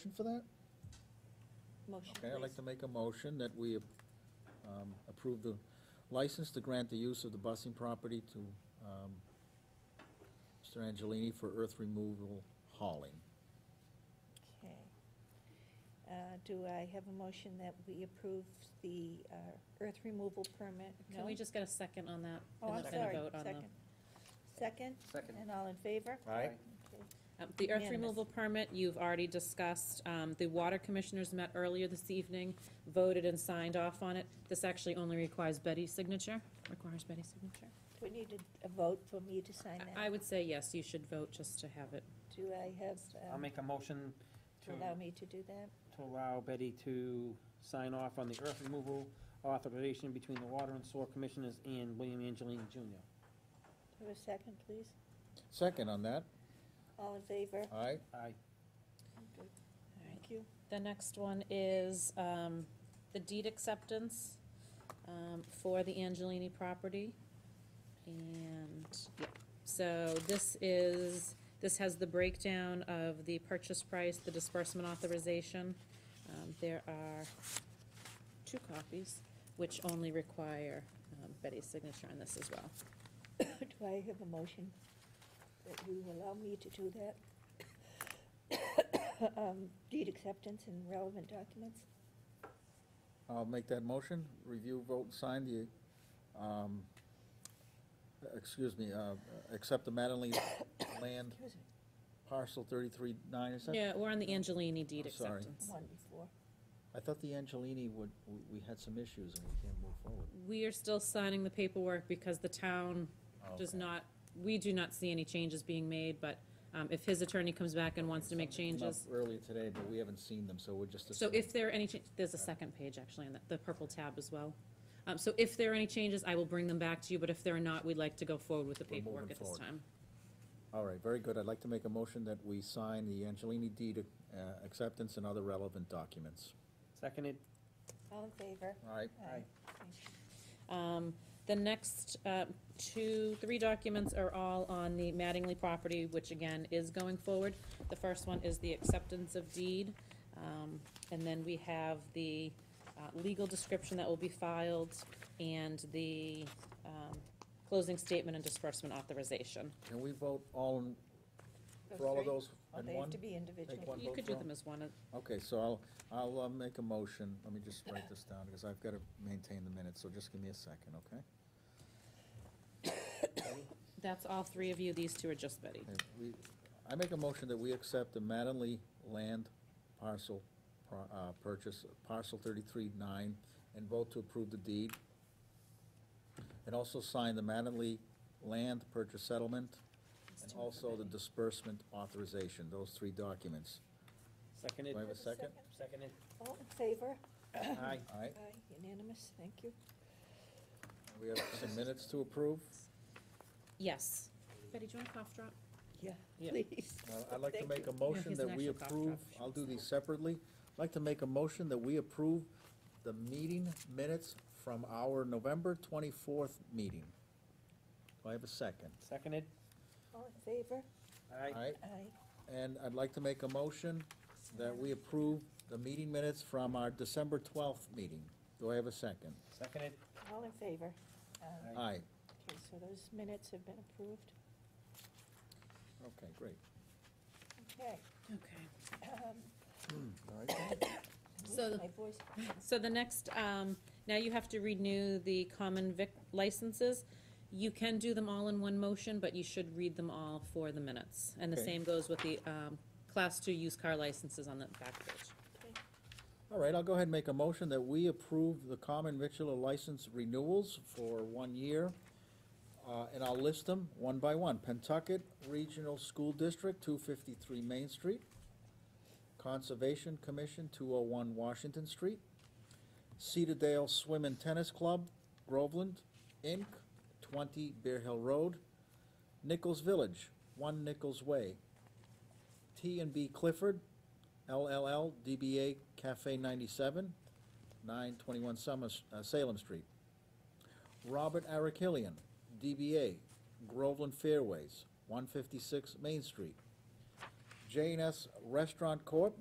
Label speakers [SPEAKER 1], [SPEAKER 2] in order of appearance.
[SPEAKER 1] Motion for that?
[SPEAKER 2] Motion,
[SPEAKER 1] Okay, I'd like
[SPEAKER 2] please.
[SPEAKER 1] to make a motion that we um, approve the license to grant the use of the busing property to um, Mr. Angelini for earth removal hauling.
[SPEAKER 2] Okay. Uh, Do I have a motion that we approve the uh, earth removal permit?
[SPEAKER 3] Can we
[SPEAKER 2] No?
[SPEAKER 3] just get a second on that?
[SPEAKER 2] Oh,
[SPEAKER 3] and
[SPEAKER 2] I'm
[SPEAKER 3] then a
[SPEAKER 2] sorry,
[SPEAKER 3] vote on the- uh,
[SPEAKER 2] second. Second,
[SPEAKER 4] Second.
[SPEAKER 2] and all in favor?
[SPEAKER 1] Aye.
[SPEAKER 2] Okay.
[SPEAKER 3] Um, The earth
[SPEAKER 2] Unanimous.
[SPEAKER 3] removal permit, you've already discussed. Um, The water commissioners met earlier this evening, voted and signed off on it. This actually only requires Betty's signature, requires Betty's signature.
[SPEAKER 2] We need a- a vote for me to sign
[SPEAKER 3] I-
[SPEAKER 2] that.
[SPEAKER 3] I would say yes, you should vote just to have it.
[SPEAKER 2] Do I have,
[SPEAKER 4] I'll
[SPEAKER 2] um,
[SPEAKER 4] make a motion to,
[SPEAKER 2] to allow me to do that?
[SPEAKER 4] to allow Betty to sign off on the earth removal authorization between the Water and Sewer Commissioners and William Angelini Jr.
[SPEAKER 2] Do I have a second, please?
[SPEAKER 1] Second on that,
[SPEAKER 2] All in favor?
[SPEAKER 1] aye?
[SPEAKER 4] Aye.
[SPEAKER 2] Thank you.
[SPEAKER 3] The next one is um, the deed acceptance um, for the Angelini property. And, yeah, so this is, this has the breakdown of the purchase price, the disbursement authorization. Um, There are two copies, which only require um, Betty's signature on this as well.
[SPEAKER 2] Do I have a motion that you allow me to do that? Um, Deed acceptance and relevant documents?
[SPEAKER 1] I'll make that motion, review, vote, and sign the, um, excuse me, uh, accept the Mattingly land
[SPEAKER 2] Excuse me,
[SPEAKER 1] parcel 33-9, is that?
[SPEAKER 3] Yeah, we're on the Angelini deed
[SPEAKER 1] I'm sorry.
[SPEAKER 3] acceptance.
[SPEAKER 2] One before.
[SPEAKER 1] I thought the Angelini would, we- we had some issues and we can't move forward.
[SPEAKER 3] We are still signing the paperwork because the town does
[SPEAKER 1] Okay.
[SPEAKER 3] not, we do not see any changes being made, but um, if his attorney comes back and wants to make
[SPEAKER 1] Something came up
[SPEAKER 3] changes.
[SPEAKER 1] Earlier today, but we haven't seen them, so we're just.
[SPEAKER 3] So
[SPEAKER 1] assuming.
[SPEAKER 3] if there are any, cha- there's a second page actually, in the- the purple tab as well. Um, So if there are any changes, I will bring them back to you, but if there are not, we'd like to go forward with the
[SPEAKER 1] We're moving
[SPEAKER 3] paperwork at this
[SPEAKER 1] forward.
[SPEAKER 3] time.
[SPEAKER 1] All right, very good. I'd like to make a motion that we sign the Angelini deed uh, acceptance and other relevant documents.
[SPEAKER 4] Seconded?
[SPEAKER 2] All in favor?
[SPEAKER 1] All right,
[SPEAKER 4] Aye.
[SPEAKER 3] Um, The next uh, two, three documents are all on the Mattingly property, which again is going forward. The first one is the acceptance of deed, um, and then we have the uh, legal description that will be filed and the um, closing statement and disbursement authorization.
[SPEAKER 1] can we vote all, in- for all of
[SPEAKER 2] Three?
[SPEAKER 1] those
[SPEAKER 2] Or
[SPEAKER 1] in
[SPEAKER 2] They have
[SPEAKER 1] one?
[SPEAKER 2] to be individual.
[SPEAKER 1] Take one
[SPEAKER 3] You
[SPEAKER 1] vote
[SPEAKER 3] could
[SPEAKER 1] for
[SPEAKER 3] do
[SPEAKER 1] all?
[SPEAKER 3] them as one. uh,
[SPEAKER 1] Okay, so I'll, I'll uh, make a motion. Let me just write this down because I've got to maintain the minutes, so just give me a second, okay?
[SPEAKER 3] That's all three of you. These two are just Betty.
[SPEAKER 1] Okay, we- I make a motion that we accept the Mattingly land parcel, par- uh, purchase, parcel thirty-three nine, and vote to approve the deed. And also sign the Mattingly land purchase settlement, and also the disbursement authorization, those three documents.
[SPEAKER 4] Seconded?
[SPEAKER 1] Do I have a second?
[SPEAKER 4] Seconded?
[SPEAKER 2] All in favor?
[SPEAKER 4] Aye.
[SPEAKER 1] All right,
[SPEAKER 2] Aye, unanimous, thank you.
[SPEAKER 1] we have some minutes to approve.
[SPEAKER 3] Yes. Betty, do you want a cough drop?
[SPEAKER 2] Yeah,
[SPEAKER 4] Yeah.
[SPEAKER 2] please.
[SPEAKER 1] Uh, I'd like to
[SPEAKER 2] Thank
[SPEAKER 1] make a
[SPEAKER 2] you.
[SPEAKER 1] motion
[SPEAKER 3] he's
[SPEAKER 1] that
[SPEAKER 3] an
[SPEAKER 1] we
[SPEAKER 3] actual cough
[SPEAKER 1] approve,
[SPEAKER 3] drop.
[SPEAKER 1] I'll do these separately. I'd like to make a motion that we approve the meeting minutes from our November twenty-fourth meeting. Do I have a second?
[SPEAKER 4] Seconded?
[SPEAKER 2] All in favor?
[SPEAKER 4] Aye.
[SPEAKER 1] All right,
[SPEAKER 2] Aye.
[SPEAKER 1] and I'd like to make a motion that we approve the meeting minutes from our December twelfth meeting. Do I have a second?
[SPEAKER 4] Seconded?
[SPEAKER 2] All in favor? Um,
[SPEAKER 4] Aye.
[SPEAKER 1] Aye,
[SPEAKER 2] Okay, so those minutes have been approved.
[SPEAKER 1] okay, great.
[SPEAKER 2] Okay.
[SPEAKER 3] Okay.
[SPEAKER 2] um,
[SPEAKER 1] All right.
[SPEAKER 3] So-
[SPEAKER 2] My voice,
[SPEAKER 3] So the next, um, now you have to renew the common vic licenses. You can do them all in one motion, but you should read them all for the minutes. And the
[SPEAKER 1] Okay.
[SPEAKER 3] same goes with the, um, class two used car licenses on the back page.
[SPEAKER 2] okay.
[SPEAKER 1] All right, I'll go ahead and make a motion that we approve the common victular license renewals for one year. Uh, and I'll list them one by one. Pentucket Regional School District, two fifty-three Main Street. Conservation Commission, two oh one Washington Street. Cedardale Swim and Tennis Club, Groveland, Inc., twenty Bear Hill Road. Nichols Village, one Nichols Way. T and B Clifford, LLL DBA Cafe 97, 921 Summer, uh, Salem Street. Robert Arakilian, DBA Groveland Fairways, 156 Main Street. J&S Restaurant Corp.,